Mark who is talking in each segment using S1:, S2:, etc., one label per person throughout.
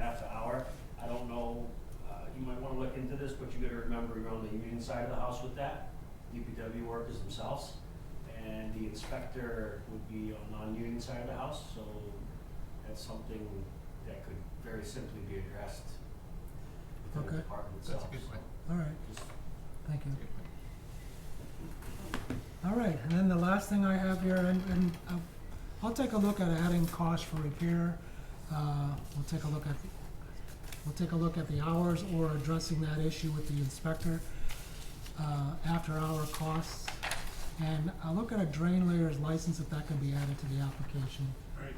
S1: uh, but you gotta remember, you're on the union side of the house with that, DPW workers themselves, and the inspector would be on the non-union side of the house, so that's something that could very simply be addressed within the
S2: Okay.
S1: department
S3: That's a
S1: itself,
S3: good
S1: so
S3: point.
S2: all right,
S1: just
S2: thank you.
S3: Good point.
S2: All right, and then the last thing I have here, and, and uh, I'll take a look at adding cost for repair. Uh, we'll take a look at, we'll take a look at the hours or addressing that issue with the inspector, uh, after hour costs. And I'll look at a drain layers license if that can be added to the application.
S4: Right.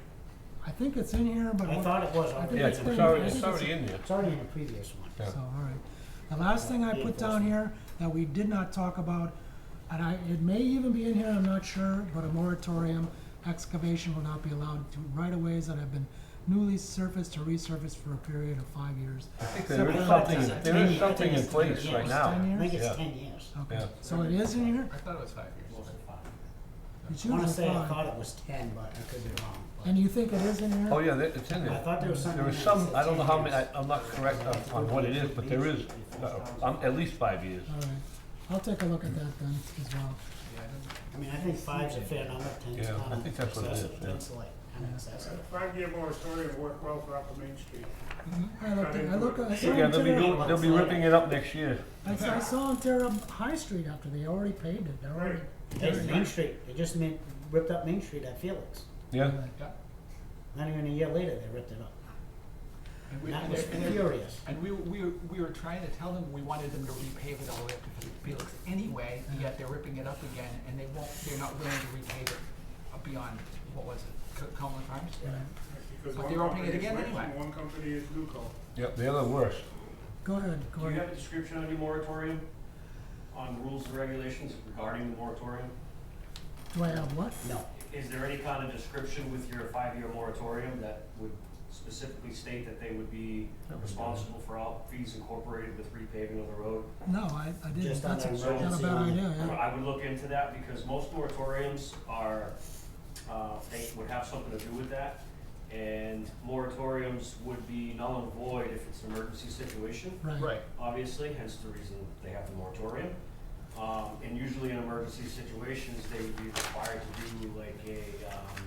S2: I think it's in here, but.
S4: I
S2: what-
S4: thought it was.
S2: I
S4: already.
S2: think
S5: Yeah,
S2: it's
S5: it's
S2: been-
S5: already,
S2: I
S5: it's
S2: think it's-
S5: already in there.
S4: It's already in the previous one.
S5: Yeah.
S2: So, all right. The last thing I
S4: Yeah,
S2: put down
S4: enforcement.
S2: here that we did not talk about, and I, it may even be in here, I'm not sure, but a moratorium, excavation will not be allowed to right-of-ways that have been newly surfaced to resurfaced for a period of five years.
S5: I think
S2: So
S5: there
S2: what
S5: is
S2: about
S5: something,
S4: that?
S5: there
S4: Ten-
S5: is something in
S4: ten
S5: place
S4: years.
S5: right
S2: Ten
S5: now.
S4: I think
S5: Yeah. Oh,
S4: it's ten years.
S2: Okay,
S5: Yeah.
S2: so it is in here?
S3: I thought it was five years.
S1: most of the fun.
S2: It's
S4: I wanna
S2: usually
S4: say I
S2: five.
S4: thought it was ten, but I could be wrong. but-
S2: And you think it is in here?
S5: Oh, yeah, there- it's in
S4: I
S5: there.
S4: thought there was something.
S5: There is
S4: that
S5: some,
S4: said
S5: I don't know how
S4: 10
S5: many,
S4: years.
S5: I- I'm not correct on, on what it is, but there is, uh, um, at least five years.
S2: All right. I'll take a look at that then as well.
S4: I mean, I think five's a fair number, ten's
S5: Yeah, I
S4: not
S5: think that's what it is,
S4: excessive,
S5: yeah.
S4: ten's like, excessive.
S6: Five-year moratorium worked well for Upper Main Street.
S2: I looked, at- I look, I saw
S5: Yeah,
S2: him
S5: they'll be,
S2: tear up,
S5: go- they'll be ripping it up next year.
S2: I s- I saw him tear up High Street after they already paved it, they already.
S4: Hey, Main Street, they just made, ripped up Main Street at Felix.
S5: Yeah,
S3: Yeah.
S4: Not even a year later, they ripped it up.
S3: And we,
S4: That
S3: and
S4: was
S3: they're- and they're-
S4: furious.
S3: and we, we, were- we were trying to tell them, we wanted them to repave it all the way up to Felix anyway, yet they're ripping it up again, and they won't, they're not willing to repave it uh, beyond, what was it, Co- Coleman Farms?
S6: Because
S3: But
S6: one
S3: they're opening it
S6: company is
S3: again
S6: Wix and
S3: anyway.
S6: One company is Newco.
S5: yep, they're the worst.
S2: Go ahead,
S1: Do
S2: Gordon.
S1: you have a description on your moratorium, on rules and regulations regarding the moratorium?
S2: Do I have what?
S4: No,
S1: Is there any kind of description with your five-year moratorium that would specifically state that they would be responsible for all fees incorporated with repaving of the road?
S2: No, I, I didn't.
S4: Just on
S2: That's
S4: that
S2: a- not a
S4: emergency
S2: bad
S4: line.
S2: idea, yeah.
S1: I would look into that because most moratoriums are, uh, they would have something to do with that. And moratoriums would be null and void if it's an emergency situation.
S2: Right.
S1: obviously, hence the reason they have the moratorium. Um, and usually in emergency situations, they would be required to do like a, um,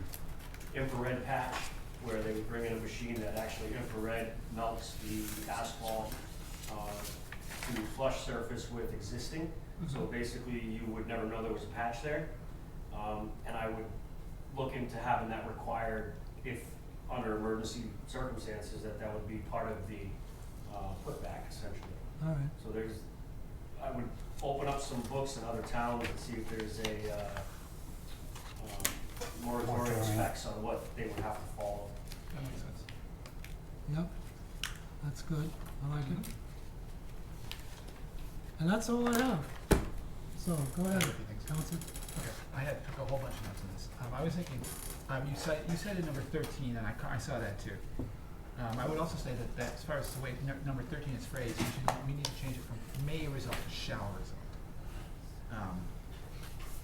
S1: infrared patch, where they would bring in a machine that actually infrared melts the asphalt, uh, to flush surface with existing. So basically, you would never know there was a patch there. Um, and I would look into having that required if, under emergency circumstances, that that would be part of the, uh, putback essentially.
S2: All right.
S1: So there's, I would open up some books in other towns and see if there's a, uh, um, moratorium
S5: Moratorium.
S1: specs on what they would have to follow.
S3: That makes sense.
S2: Yep. That's good. I like it. And that's all I have. So go ahead,
S3: Everything's-
S2: Council.
S3: Okay, I had took a whole bunch of notes on this. Um, I was thinking, um, you said, you said in number thirteen, and I, ca- I saw that too. Um, I would also say that, that as far as the way nu- number thirteen is phrased, we should, we need to change it from may result to shall result. Um,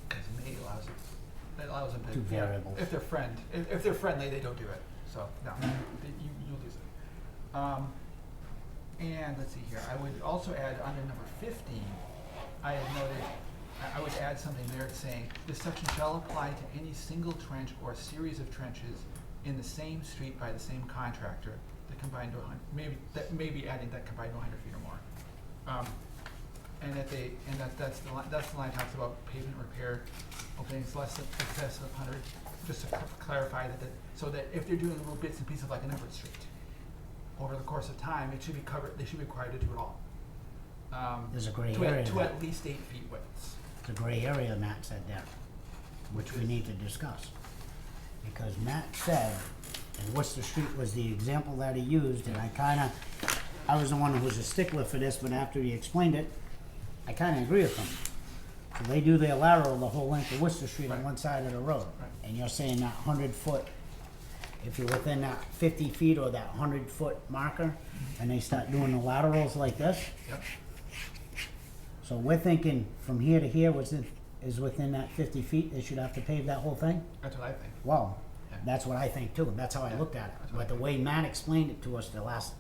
S3: cause may allows, it allows them to.
S4: Two
S3: if they're-
S4: variables. Mm-hmm.
S3: If they're friend, if, if they're friendly, they don't do it, so, no, they- you, you'll lose it. Um, and let's see here, I would also add under number fifteen, I had noted, I, I would add something there saying, this section shall apply to any single trench or series of trenches in the same street by the same contractor that combine to a hun- maybe, that maybe adding that combined to a hundred feet or more. Um, and that they, and that, that's the line, that's the line talks about pavement repair openings less than excess of hundred, just to cl- clarify that, that, so that if they're doing little bits and pieces like an Everett street, over the course of time, it should be covered, they should be required to do it all. Um,
S4: There's a gray
S3: to at-
S4: area
S3: To
S4: there.
S3: at least eight feet widths.
S4: the gray area Matt said there, which we need to discuss. Because Matt said, and Worcester Street was the example that he used, and I kinda, I was the one who was a stickler for this, but after he explained it, I kinda agree with him. So they do their lateral the whole length of Worcester Street on
S3: Right.
S4: one side of the road.
S3: Right.
S4: And you're saying that hundred foot, if you're within that fifty feet or that hundred foot marker, and they start doing the laterals like this,
S3: Yep.
S4: so we're thinking from here to here was in, is within that fifty feet, they should have to pave that whole thing?
S3: That's what I think.
S4: Well,
S3: Yeah.
S4: that's what I think too, and that's how I looked at it. But the way Matt explained it to us the last